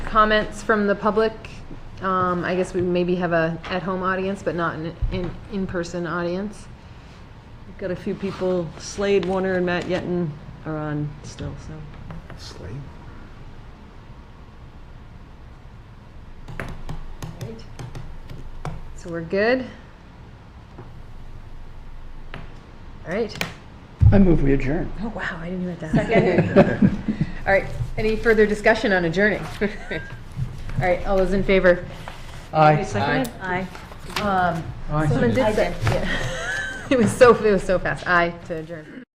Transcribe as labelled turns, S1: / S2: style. S1: comments from the public. Um, I guess we maybe have a at-home audience, but not an in, in-person audience.
S2: We've Got a few people, Slade, Warner, and Matt Yeton are on still, so.
S3: Slate?
S1: So we're good? All right.
S4: I move we adjourn.
S1: Oh, wow, I didn't hear that. All right, any further discussion on adjourning? All right, all those in favor?
S4: Aye.
S1: Seconded?
S5: Aye.
S1: Um,
S4: Aye.
S1: someone did say, yeah. It was so, it was so fast, aye to adjourn.